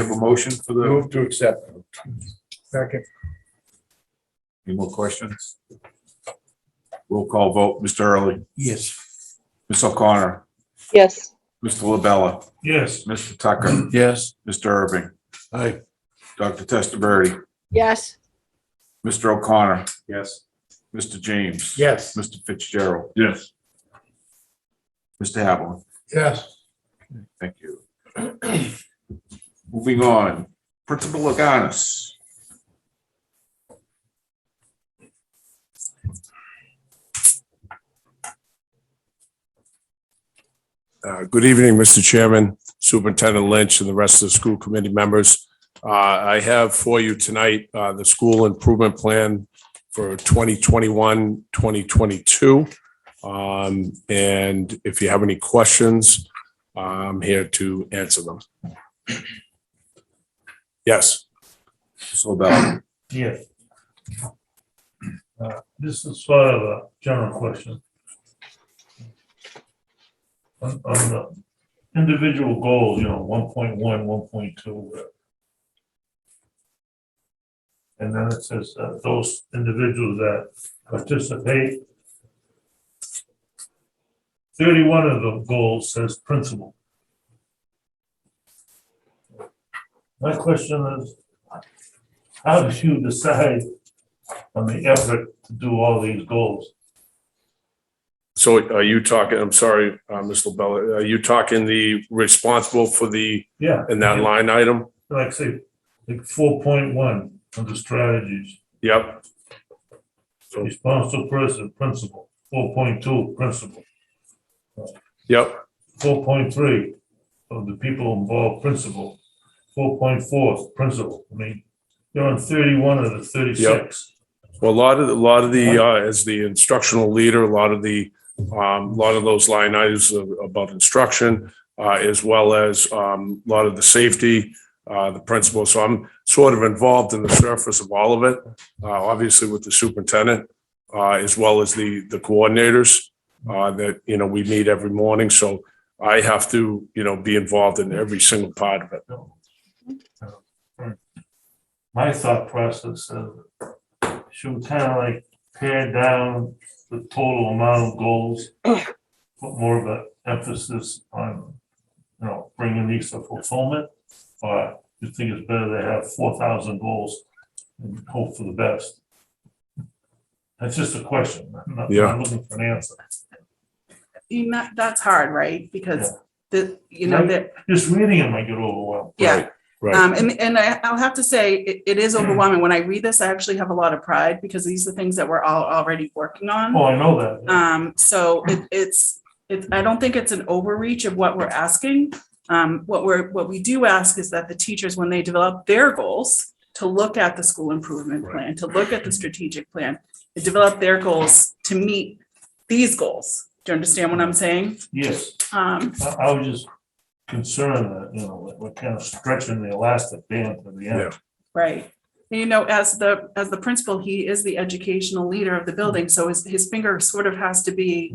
have a motion for the, Move to accept. Second. any more questions? Roll call vote, Mr. Early, Yes. Ms. O'Connor, yes, Mr. LaBella, Yes. Mr. Tucker, Yes. Mr. Irving, Aye. Dr. Testaverde, yes, Mr. O'Connor, Yes. Mr. James. Yes. Mr. Fitzgerald, Yes. Mr. Havlin, Yes. thank you. Moving on, Principal Agonis. Uh, Good evening, Mr. Chairman, Superintendent Lynch, and the rest of the school committee members. Uh, I have for you tonight uh, the school improvement plan for 2021, 2022. Um, And if you have any questions, I'm here to answer them. Yes, Ms. LaBella, Yes. Uh, This is sort of a general question. On, on the individual goals, you know, 1.1, 1.2, uh, And then it says uh, those individuals that participate. Thirty-one of the goals says principal. My question is, how do you decide on the effort to do all these goals? so are you talking, I'm sorry, uh, Ms. LaBella, are you talking the responsible for the, Yeah. in that line item? Like say, like four point one of the strategies, Yep, Oh. responsible person, principal, four point two, principal, yep. four point three of the people involved, principal, four point four, principal. I mean, you're on thirty-one of the thirty-six. Well, a lot of, a lot of the, uh, as the instructional leader, a lot of the, um, a lot of those line items about instruction, uh, as well as, um, a lot of the safety, uh, the principal. So I'm sort of involved in the surface of all of it, uh, obviously with the superintendent, uh, as well as the, the coordinators, uh, that, you know, we meet every morning. So I have to, you know, be involved in every single part of it. My thought process is, should we kind of like pare down the total amount of goals? Put more of an emphasis on, you know, bringing these to fulfillment? Or you think it's better to have four thousand goals and hope for the best? That's just a question. I'm not, Yeah. I'm looking for an answer. You know, that's hard, right? Because the, you know, Right. that, Just reading them, I get overwhelmed. yeah. Right, right. Um, and, and I, I'll have to say, it, it is overwhelming. When I read this, I actually have a lot of pride because these are things that we're all already working on. Oh, I know that. Um, so it, it's, it's, I don't think it's an overreach of what we're asking. Um, what we're, what we do ask is that the teachers, when they develop their goals, to look at the school improvement plan, to look at the strategic plan, to develop their goals to meet these goals. Do you understand what I'm saying? Yes. Um, I, I was just concerned that, you know, that we're kind of stretching the elastic band to the end. Right. And you know, as the, as the principal, he is the educational leader of the building, so his, his finger sort of has to be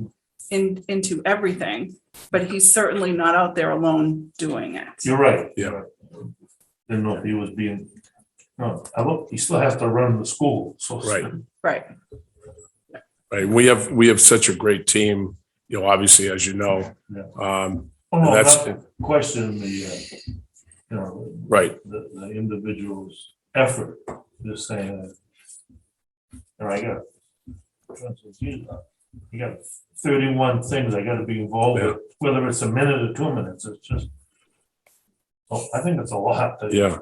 in, into everything, but he's certainly not out there alone doing it. You're right. Yeah. you're right. Didn't know if he was being, no, I look, he still has to run the school, so. Right. Right, Right, we have, we have such a great team, you know, obviously, as you know. Yeah. Um, Oh, no, That's- not to question the, uh, you know, right, the, the individual's effort, just saying that. And I got, you got thirty-one things I gotta be involved with, whether it's a minute or two minutes, it's just. Oh, I think it's a lot. to- yeah.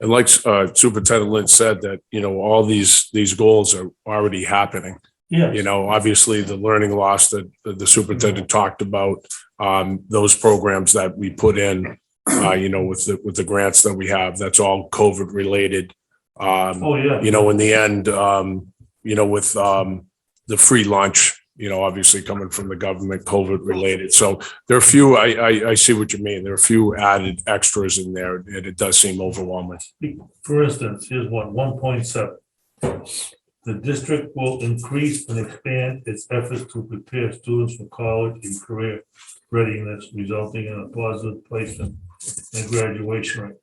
And like uh, Superintendent Lynch said, that, you know, all these, these goals are already happening. Yes. You know, obviously, the learning loss that that the superintendent talked about, um, those programs that we put in, uh, you know, with the, with the grants that we have, that's all COVID-related. Um, Oh, yeah. you know, in the end, um, you know, with, um, the free lunch, you know, obviously coming from the government, COVID related. So there are a few, I, I, I see what you mean. There are a few added extras in there and it does seem overwhelming. For instance, here's one, one point seven. The district will increase and expand its efforts to prepare students for college and career readiness, resulting in a positive placement and graduation rate.